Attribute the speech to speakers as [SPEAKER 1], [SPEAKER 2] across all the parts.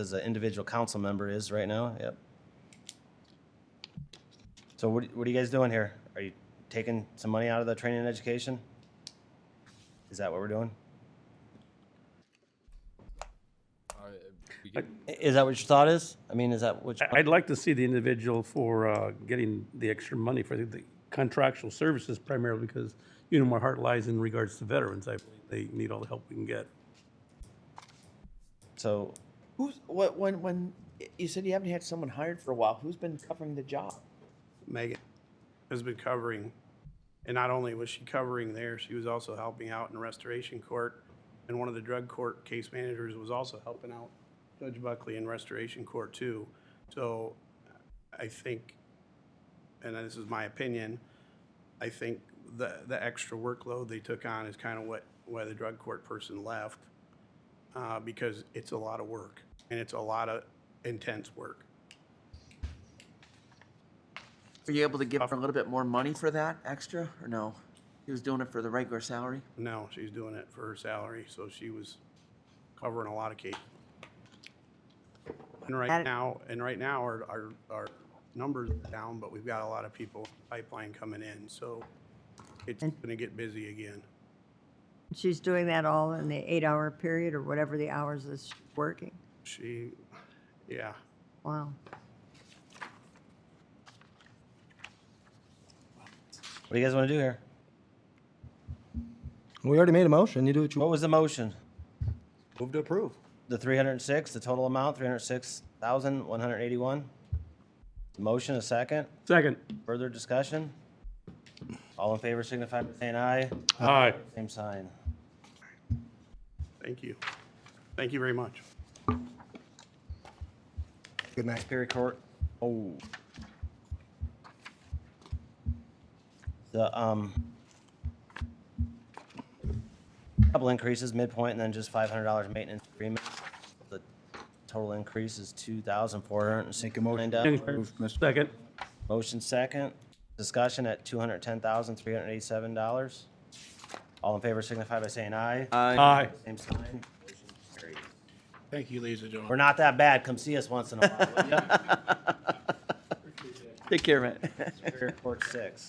[SPEAKER 1] as an individual council member is right now, yep. So what, what are you guys doing here? Are you taking some money out of the training and education? Is that what we're doing? I- Is that what your thought is? I mean, is that what? you-
[SPEAKER 2] I- I'd like to see the individual for uh, getting the extra money for the- the contractual services primarily because, you know, my heart lies in regards to veterans. I believe they need all the help we can get.
[SPEAKER 1] So
[SPEAKER 3] Who's what when when you said you haven't had someone hired for a while? Who's been covering the job?
[SPEAKER 4] Megan has been covering, and not only was she covering there, she was also helping out in restoration court. And one of the drug court case managers was also helping out Judge Buckley in restoration court too. So I think, and this is my opinion, I think the, the extra workload they took on is kind of what, why the drug court person left. Uh, because it's a lot of work and it's a lot of intense work.
[SPEAKER 3] Were you able to give her a little bit more money for that extra or no? He was doing it for the regular salary.
[SPEAKER 4] No, she's doing it for her salary, so she was covering a lot of cases. And right
[SPEAKER 5] That-
[SPEAKER 4] now, and right now, our, our, our numbers are down, but we've got a lot of people pipeline coming in, so it's gonna get busy again.
[SPEAKER 5] She's doing that all in the eight-hour period or whatever the hours is she's working.
[SPEAKER 4] She, yeah,
[SPEAKER 5] Wow.
[SPEAKER 1] what do you guys want to do here?
[SPEAKER 6] We already made a motion. You do what you
[SPEAKER 1] What was the motion?
[SPEAKER 6] Move to approve.
[SPEAKER 1] The three hundred and six, the total amount, three hundred and six thousand, one hundred and eighty-one? Motion, a second?
[SPEAKER 2] Second.
[SPEAKER 1] Further discussion? All in favor signify by saying aye.
[SPEAKER 2] Aye.
[SPEAKER 1] Same sign.
[SPEAKER 4] thank you. Thank you very much.
[SPEAKER 6] Good night.
[SPEAKER 1] Superior Court, oh. The, um, couple increases midpoint and then just five hundred dollars maintenance agreement. The total increase is two thousand four hundred and
[SPEAKER 6] Make a
[SPEAKER 1] sixty-nine
[SPEAKER 6] motion.
[SPEAKER 1] dollars.
[SPEAKER 2] Second.
[SPEAKER 1] Motion second, discussion at two hundred ten thousand three hundred eighty-seven dollars. All in favor signify by saying aye.
[SPEAKER 2] Aye.
[SPEAKER 1] Same sign. Motion carried.
[SPEAKER 7] Thank you, ladies and
[SPEAKER 1] We're
[SPEAKER 7] gentlemen.
[SPEAKER 1] not that bad. Come see us once in a while, will ya?
[SPEAKER 3] Take care of it.
[SPEAKER 1] Superior Court six.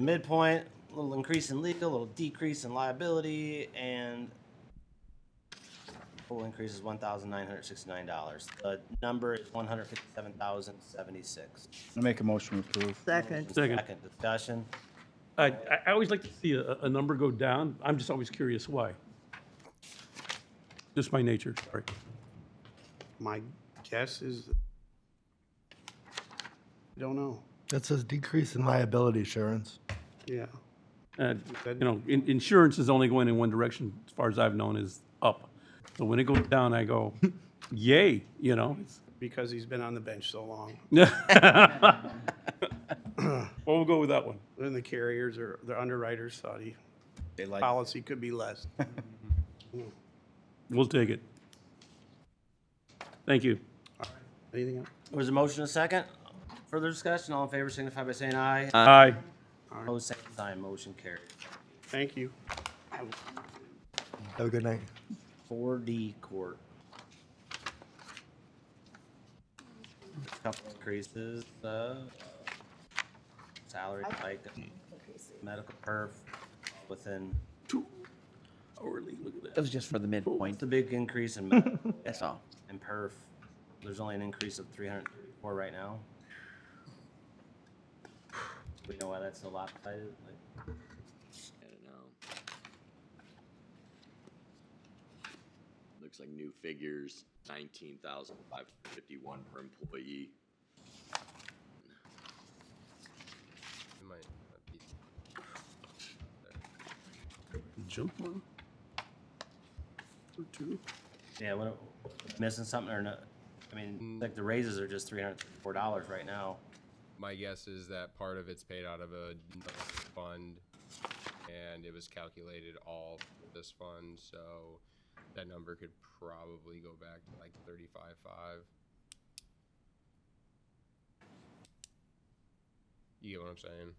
[SPEAKER 1] Midpoint, little increase in legal, little decrease in liability, and total increase is one thousand nine hundred sixty-nine dollars. The number is one hundred fifty-seven thousand seventy-six.
[SPEAKER 6] I make a motion to approve.
[SPEAKER 5] Second,
[SPEAKER 2] Second.
[SPEAKER 1] Second discussion.
[SPEAKER 2] I, I I always like to see a, a number go down. I'm just always curious why. Just my nature, sorry.
[SPEAKER 4] My guess is, I don't know,
[SPEAKER 6] That says decrease in liability insurance.
[SPEAKER 4] yeah.
[SPEAKER 2] Uh, You know, in- insurance is only going in one direction, as far as I've known, is up. So when it goes down, I go, yay, you know? it's-
[SPEAKER 4] Because he's been on the bench so long,
[SPEAKER 2] Well, we'll go with that one.
[SPEAKER 4] then the carriers or the underwriters thought he,
[SPEAKER 6] They like.
[SPEAKER 4] policy could be less.
[SPEAKER 2] We'll take it. Thank you.
[SPEAKER 4] Anything else?
[SPEAKER 1] There's a motion, a second. Further discussion, all in favor signify by saying aye.
[SPEAKER 2] Aye.
[SPEAKER 1] Opposed, same sign, motion carried.
[SPEAKER 4] Thank you.
[SPEAKER 6] Have a good night.
[SPEAKER 1] Four D court. Couple increases, uh, salary, like, medical perf, within,
[SPEAKER 2] Hourly, look at that.
[SPEAKER 3] That was just for the midpoint.
[SPEAKER 1] it's a big increase in medical
[SPEAKER 3] That's all.
[SPEAKER 1] and perf. There's only an increase of three hundred and thirty-four right now. We know why that's so lopsided, like.
[SPEAKER 8] I don't know. Looks like new figures, nineteen thousand five hundred fifty-one per employee.
[SPEAKER 2] Jump one. Or two.
[SPEAKER 1] Yeah, what, missing something or not? I mean, like the raises are just three hundred thirty-four dollars right now.
[SPEAKER 9] My guess is that part of it's paid out of a another fund, and it was calculated all for this fund, so that number could probably go back to like thirty-five, five. You get what I'm saying?